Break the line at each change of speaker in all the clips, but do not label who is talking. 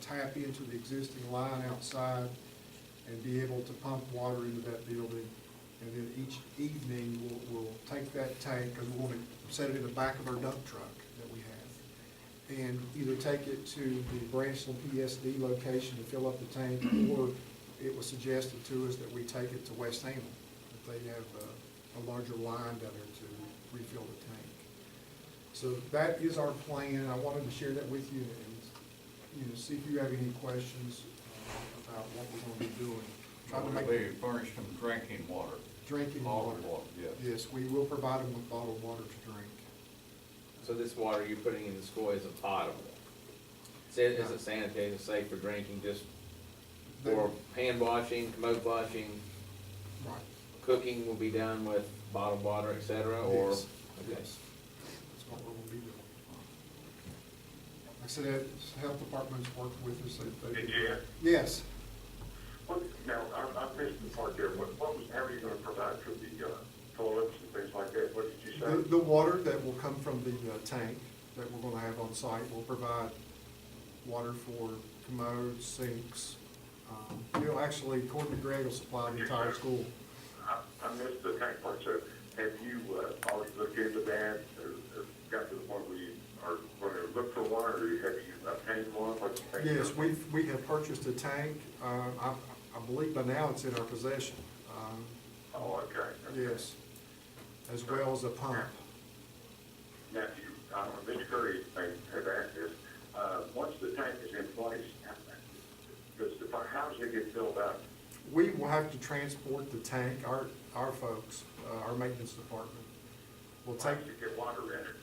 tap into the existing line outside and be able to pump water into that building. And then each evening, we'll, we'll take that tank, because we want to set it in the back of our dump truck that we have, and either take it to the Branchland PSD location to fill up the tank, or it was suggested to us that we take it to West Hamlin, that they have a, a larger line down there to refill the tank. So that is our plan, I wanted to share that with you and, you know, see if you have any questions uh, about what we're gonna be doing. Try to make
They furnish them drinking water.
drinking water.
Bottled water, yes.
Yes, we will provide them with bottled water to drink.
So this water you're putting in the school is a potable? Is it is it sanitized, it's safe for drinking, just
They-
for hand washing, commode washing,
Right.
cooking will be done with bottled water, et cetera, or?
Yes,
Okay.
yes. That's what we're gonna be doing. Like I said, the health department's worked with us. they- they-
Did you hear?
Yes.
What, now, I, I missed the part there, what, what was, how are you gonna provide for the, uh, toilets and things like that, what did you
The,
say?
the water that will come from the uh, tank that we're gonna have on site will provide water for commodes, sinks. Um, It'll actually, according to Greg, will supply the entire school.
I, I missed the tank part, so have you, uh, already looked into that, or, or got to the point where you are gonna look for one, or have you obtained one, what do you think?
Yes, we've, we have purchased a tank. Uh, I, I believe by now it's in our possession. Um,
Oh, okay. okay.
Yes, as well as a pump.
Now, if you, I don't know, Mr. Curry may have asked this, uh, once the tank is in place, how- does the, fi- how does it get filled up?
We will have to transport the tank, our, our folks, uh, our maintenance department will
How
take.
does it get water in it?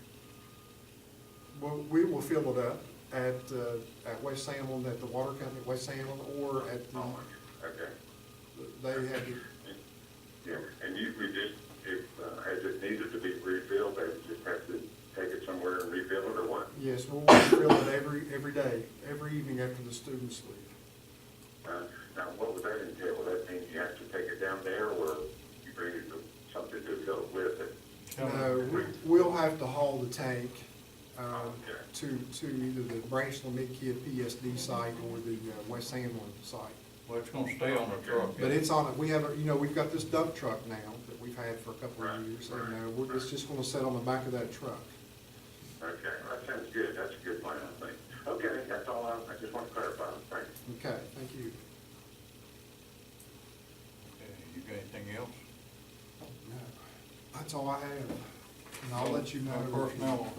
Well, we will fill it up at, uh, at West Hamlin, at the water company at West Hamlin, or at the,
Oh, okay.
they have, the-
Yeah, and usually just, if, uh, as it needed to be refilled, they would just have to take it somewhere and refill it or what?
yes, we'll fill it every, every day, every evening after the students leave.
Uh, Now, what would that entail? Would that mean you have to take it down there or you bring it to something to fill it with it?
No, Uh, we- we'll have to haul the tank, um,
Okay.
to, to either the Branchland Midkiff PSD site or the uh, West Hamlin site.
Well, it's gonna stay on the truck.
But it's on, a- we have, a you know, we've got this dump truck now that we've had for a couple
Right,
of years, and, uh,
right,
we're, it's
right.
just gonna sit on the back of that truck.
Okay, that sounds good. That's a good plan, I think. Okay, that's all I, I just want to clarify. Thanks.
Okay, thank you.
Okay, Uh, You got anything else?
No, That's all I have, and I'll let you know.
No Personnel,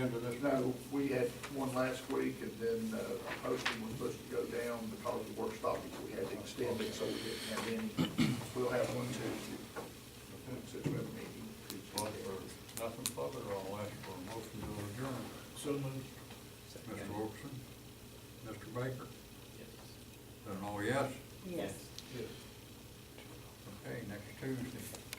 end of this.
No, we had one last week, and then uh, our posting was supposed to go down because of work stoppage, we had to extend it, so we didn't have any. We'll have one Tuesday, since we have a meeting.
Well, for Nothing further, I'll ask for a motion to adjourn.
So moved.
Mr. Wilkerson? Mr. Baker? Then all yes?
Yes.
Okay, next Tuesday.